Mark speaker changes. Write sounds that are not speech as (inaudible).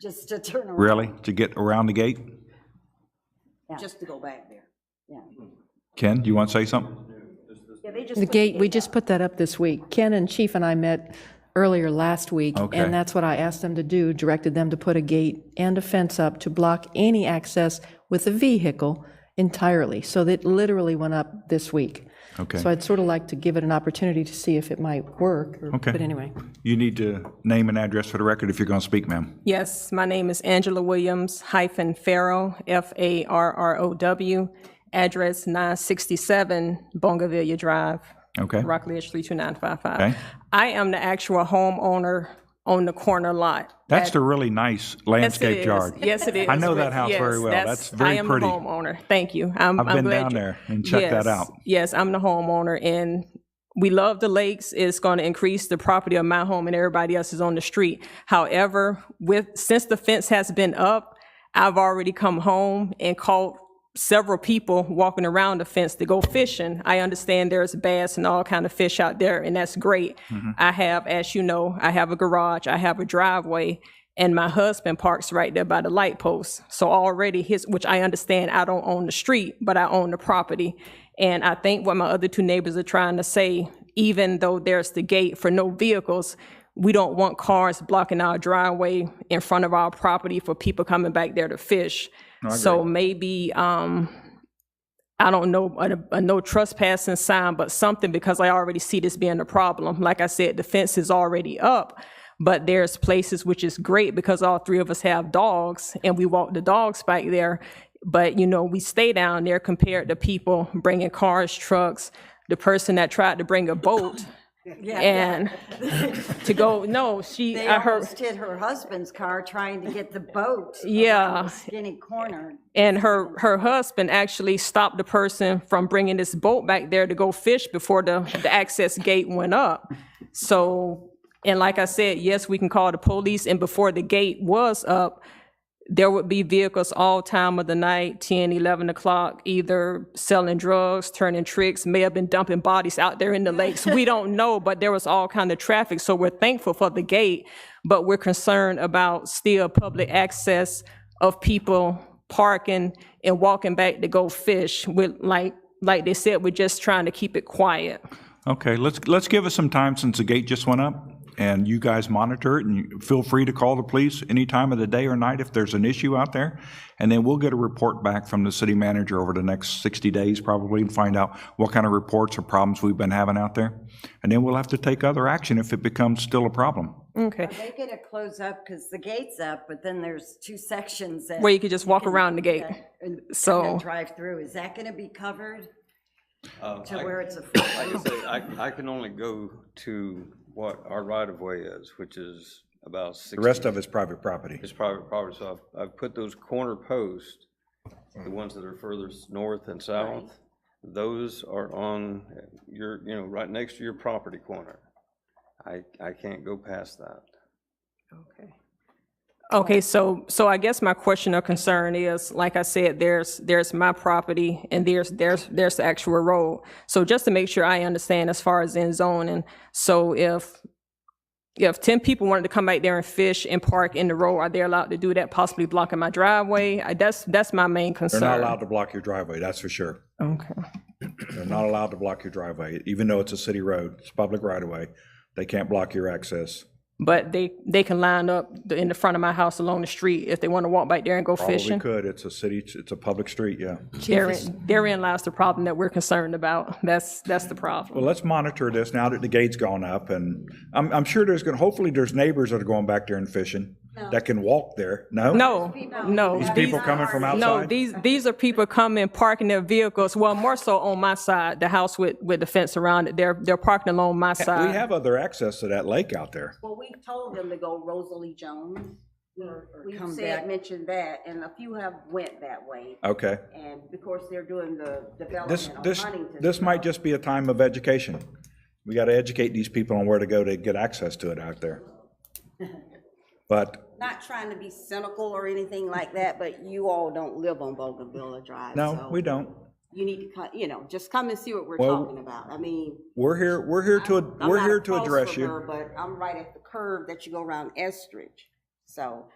Speaker 1: just to turn around.
Speaker 2: Really? To get around the gate?
Speaker 3: just to go back there.
Speaker 2: Ken, do you want to say something?
Speaker 3: Yeah, they just
Speaker 4: The gate, we just put that up this week. Ken and Chief and I met earlier last week,
Speaker 2: Okay.
Speaker 4: and that's what I asked them to do, directed them to put a gate and a fence up to block any access with a vehicle entirely. So that literally went up this week.
Speaker 2: Okay.
Speaker 4: So I'd sort of like to give it an opportunity to see if it might work, or-
Speaker 2: Okay.
Speaker 4: but anyway.
Speaker 2: You need to name and address for the record if you're going to speak, ma'am.
Speaker 5: Yes, my name is Angela Williams hyphen Farrow, F-A-R-R-O-W, address 967 Bongavilla Drive,
Speaker 2: Okay?
Speaker 5: Rockledge 32955.
Speaker 2: Okay.
Speaker 5: I am the actual homeowner on the corner lot.
Speaker 2: That's the really nice
Speaker 5: Yes, it
Speaker 2: landscape
Speaker 5: is.
Speaker 2: yard.
Speaker 5: Yes, it is.
Speaker 2: I know that house
Speaker 5: Yes,
Speaker 2: very well. That's very
Speaker 5: I am
Speaker 2: pretty.
Speaker 5: the homeowner. Thank you. I'm,
Speaker 2: I've
Speaker 5: I'm
Speaker 2: been
Speaker 5: glad
Speaker 2: down
Speaker 5: you-
Speaker 2: there and checked that
Speaker 5: Yes,
Speaker 2: out.
Speaker 5: Yes, I'm the homeowner, and we love the lakes. It's going to increase the property of my home and everybody else is on the street. However, with since the fence has been up, I've already come home and called several people walking around the fence to go fishing. I understand there's bass and all kind of fish out there, and that's great. I have, as you know, I have a garage, I have a driveway, and my husband parks right there by the light post. So already his, which I understand I don't own the street, but I own the property. And I think what my other two neighbors are trying to say, even though there's the gate for no vehicles, we don't want cars blocking our driveway in front of our property for people coming back there to fish. So maybe, um, I don't know, a, a no trespassing sign, but something, because I already see this being a problem. Like I said, the fence is already up, but there's places which is great because all three of us have dogs and we walk the dogs back there. But, you know, we stay down there compared to people bringing cars, trucks, the person that tried to bring
Speaker 1: (laughs)
Speaker 5: a boat and to go, no, she,
Speaker 1: They
Speaker 5: I heard.
Speaker 1: almost hit her husband's car trying to
Speaker 5: (laughs)
Speaker 1: get the boat. around
Speaker 5: Yeah.
Speaker 1: the Skinny corner.
Speaker 5: And her, her husband actually stopped the person from bringing this boat back there to go fish before the, the access gate went up. So, and like I said, yes, we can call the police, and before the gate was up, there would be vehicles all time of the night, 10, 11 o'clock, either selling drugs, turning tricks, may have been dumping bodies out there in the lakes. We don't know, but there was all kind of traffic, so we're thankful for the gate, but we're concerned about still public access of people parking and walking back to go fish. We're like, like they said, we're just trying to keep it quiet.
Speaker 2: Okay, let's, let's give us some time since the gate just went up, and you guys monitor it, and you- feel free to call the police any time of the day or night if there's an issue out there. And then we'll get a report back from the city manager over the next 60 days probably and find out what kind of reports or problems we've been having out there. And then we'll have to take other action if it becomes still a problem.
Speaker 5: Okay,
Speaker 1: They get to close up because the gate's up, but then there's two sections that.
Speaker 5: where you could just walk around the gate.
Speaker 1: and-
Speaker 5: so-
Speaker 1: and then Drive through. Is that going to be covered? To where it's a. full-
Speaker 6: Like I say, I, I can only go to what our right-of-way is, which is about
Speaker 2: The
Speaker 6: 60,
Speaker 2: rest of it's private property.
Speaker 6: it's private property, so I've, I've put those corner posts, the ones that are furthest north and south, those are on your, you know, right next to your property corner. I, I can't go past that.
Speaker 5: Okay, so, so I guess my question or concern is, like I said, there's, there's my property and there's, there's, there's the actual road. So just to make sure I understand as far as in zoning, so if, if ten people wanted to come back there and fish and park in the road, are they allowed to do that, possibly blocking my driveway? I- That's, that's my main concern.
Speaker 2: They're not allowed to block your driveway, that's for sure.
Speaker 5: Okay,
Speaker 2: They're not allowed to block your driveway, even though it's a city road, it's public right-of-way. They can't block your access.
Speaker 5: but they, they can line up the- in the front of my house along the street if they want to walk back there and go
Speaker 2: Probably
Speaker 5: fishing.
Speaker 2: could, it's a city, it's a public street, yeah.
Speaker 5: Therein, therein lies the problem that we're concerned about. That's, that's the problem.
Speaker 2: Well, let's monitor this now that the gate's gone up, and I'm, I'm sure there's going, to hopefully there's neighbors that are going back there and fishing that can walk there, no?
Speaker 5: No, no.
Speaker 2: These people coming from
Speaker 5: No,
Speaker 2: outside?
Speaker 5: these, these are people coming, parking their vehicles, well, more so on my side, the house with, with the fence around it, they're, they're parking along my
Speaker 2: We
Speaker 5: side.
Speaker 2: have other access to that lake out there.
Speaker 3: Well, we told them to go Rosalie Jones. We
Speaker 1: come back.
Speaker 3: said, mentioned that, and a few have went that way.
Speaker 2: Okay.
Speaker 3: And of course, they're doing the
Speaker 2: This,
Speaker 3: development on
Speaker 2: this,
Speaker 3: Huntington.
Speaker 2: this might just be a time of education. We got to educate these people on where to go to get access to it out there. But,
Speaker 3: Not trying to be cynical or anything like that, but you all don't live on Bougainville Drive.
Speaker 2: no,
Speaker 3: so
Speaker 2: we don't.
Speaker 3: You need to, co- you know, just come and see what we're
Speaker 2: Well-
Speaker 3: talking about. I mean.
Speaker 2: We're here, we're here to,
Speaker 3: I'm
Speaker 2: we're
Speaker 3: not
Speaker 2: here to
Speaker 3: across
Speaker 2: address
Speaker 3: from her,
Speaker 2: you.
Speaker 3: But I'm right at the curve that you go around Estridge. So